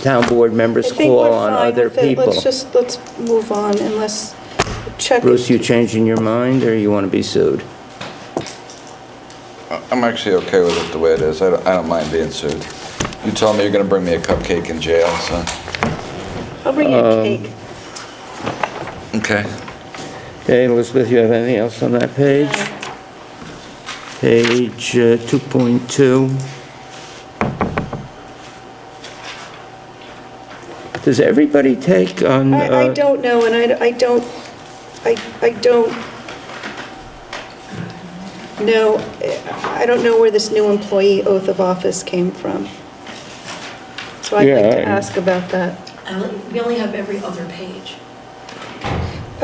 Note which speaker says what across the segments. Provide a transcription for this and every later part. Speaker 1: town board members
Speaker 2: I think
Speaker 1: call
Speaker 2: we're
Speaker 1: on
Speaker 2: fine
Speaker 1: other
Speaker 2: with it.
Speaker 1: people.
Speaker 2: Let's just, let's move on unless check.
Speaker 1: Bruce, you changing your mind, or you want to be sued?
Speaker 3: I'm actually okay with it the way it is. I don't, I don't mind being sued. You told me you're gonna bring me a cupcake in jail, so.
Speaker 2: I'll bring you
Speaker 1: um,
Speaker 2: a cake.
Speaker 3: Okay.
Speaker 1: Okay, Elizabeth, you have anything else on that page? Page uh, 2.2. Does everybody take on,
Speaker 2: I, I
Speaker 1: uh,
Speaker 2: don't know, and I, I don't, I, I don't know, I don't know where this new employee oath of office came from. So I'd like
Speaker 1: Yeah, I-
Speaker 2: to ask about that.
Speaker 4: I only- We only have every other page.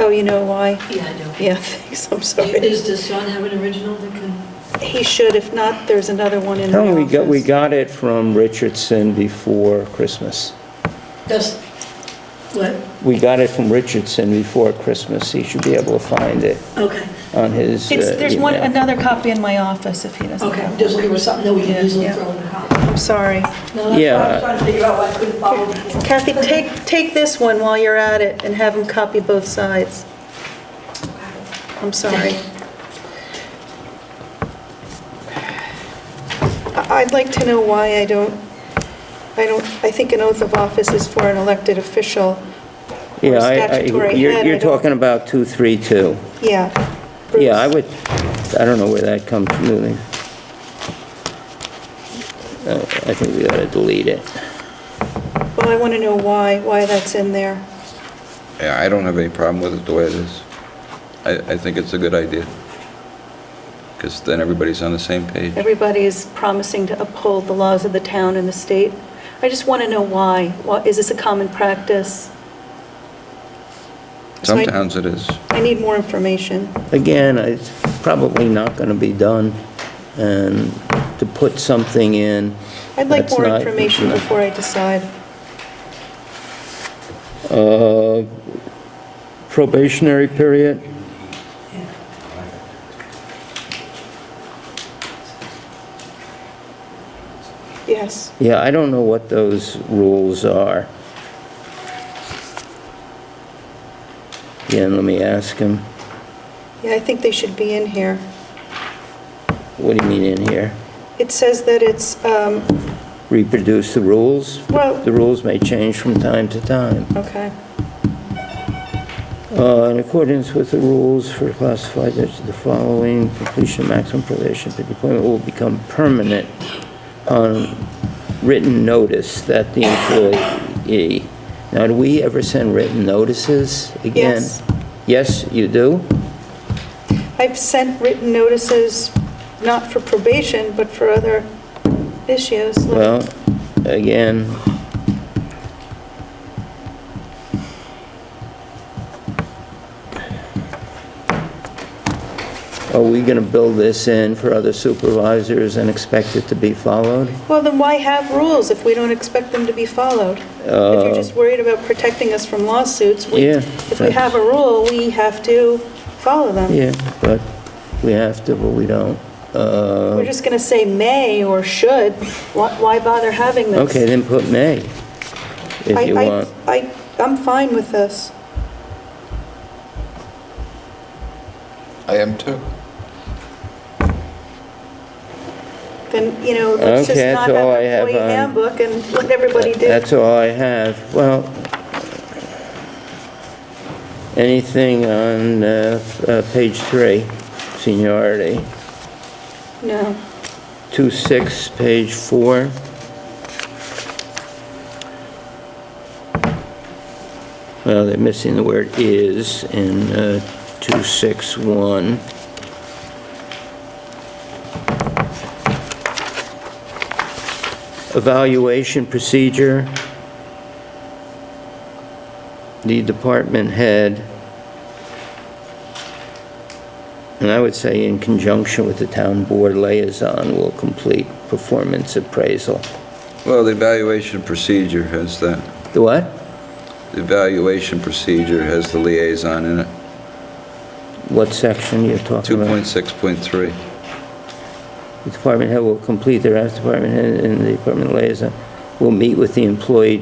Speaker 2: Oh, you know why?
Speaker 4: Yeah, I know.
Speaker 2: Yeah, thanks, I'm sorry.
Speaker 4: Is, does John have an original that can,
Speaker 2: He should, if not, there's another one in the
Speaker 1: no,
Speaker 2: office.
Speaker 1: we got, we got it from Richardson before Christmas.
Speaker 4: does, what?
Speaker 1: We got it from Richardson before Christmas. He should be able to find it
Speaker 4: Okay,
Speaker 1: on his uh,
Speaker 5: It's, there's one,
Speaker 1: email.
Speaker 5: another copy in my office if he doesn't
Speaker 4: okay,
Speaker 5: have it.
Speaker 4: just looking for something that we
Speaker 5: Yeah,
Speaker 4: can easily
Speaker 5: yeah.
Speaker 4: throw in the column.
Speaker 2: I'm sorry.
Speaker 4: No, that's
Speaker 1: Yeah.
Speaker 4: what I was trying to figure out why I couldn't follow before.
Speaker 2: Kathy, take, take this one while you're at it and have him copy both sides. I'm sorry. I- I'd like to know why I don't, I don't, I think an oath of office is for an elected official or
Speaker 1: Yeah,
Speaker 2: a
Speaker 1: I- I-
Speaker 2: statutory
Speaker 1: you're-
Speaker 2: head. I
Speaker 1: You're
Speaker 2: don't-
Speaker 1: talking about 232.
Speaker 2: Yeah. Bruce.
Speaker 1: Yeah, I would, I don't know where that comes from, really. Uh, I think we ought to delete it.
Speaker 2: Well, I want to know why, why that's in there.
Speaker 3: Yeah, I don't have any problem with it the way it is. I, I think it's a good idea. Because then everybody's on the same page.
Speaker 2: Everybody is promising to uphold the laws of the town and the state. I just want to know why. Why- Is this a common practice? So I-
Speaker 3: Some towns it is.
Speaker 2: I need more information.
Speaker 1: Again, it's probably not going to be done, and to put something in.
Speaker 2: I'd like
Speaker 1: that's
Speaker 2: more
Speaker 1: not-
Speaker 2: information before I decide.
Speaker 1: Uh, Probationary period?
Speaker 2: Yes.
Speaker 1: Yeah, I don't know what those rules are. Again, let me ask him.
Speaker 2: Yeah, I think they should be in here.
Speaker 1: What do you mean in here?
Speaker 2: It says that it's, um,
Speaker 1: Reproduce the rules?
Speaker 2: Well-
Speaker 1: The rules may change from time to time.
Speaker 2: okay,
Speaker 1: Uh, In accordance with the rules for classified, there's the following completion maximum probation, the deployment will become permanent on written notice that the employee. Now, do we ever send written notices again?
Speaker 2: Yes.
Speaker 1: Yes, you do?
Speaker 2: I've sent written notices, not for probation, but for other issues. like-
Speaker 1: Well, again, are we going to build this in for other supervisors and expect it to be followed?
Speaker 2: Well, then why have rules if we don't expect them to be followed? If you're just worried about protecting us from lawsuits, we-
Speaker 1: Uh, Yeah,
Speaker 2: if we have a rule, we have to follow them.
Speaker 1: Yeah, but we have to, but we don't.
Speaker 2: We're
Speaker 1: Uh,
Speaker 2: just going to say may or should. Why why bother having this?
Speaker 1: Okay, then put may,
Speaker 2: I-
Speaker 1: if you
Speaker 2: I-
Speaker 1: want.
Speaker 2: I, I'm fine with this.
Speaker 3: I am too.
Speaker 2: Then, you know, let's just
Speaker 1: Okay,
Speaker 2: not
Speaker 1: that's all
Speaker 2: have
Speaker 1: I
Speaker 2: an
Speaker 1: have
Speaker 2: employee
Speaker 1: on-
Speaker 2: handbook and let everybody do.
Speaker 1: That's all I have. Well, anything on uh, uh, page three, seniority?
Speaker 2: No.
Speaker 1: Two six, page four. Well, they're missing the word is in uh, 261. Evaluation procedure. The department head. And I would say in conjunction with the town board liaison will complete performance appraisal.
Speaker 3: Well, the evaluation procedure has that.
Speaker 1: The what?
Speaker 3: The evaluation procedure has the liaison in it.
Speaker 1: What section you're talking about?
Speaker 3: 2.6.3.
Speaker 1: The department head will complete their, department head and the department liaison will meet with the employee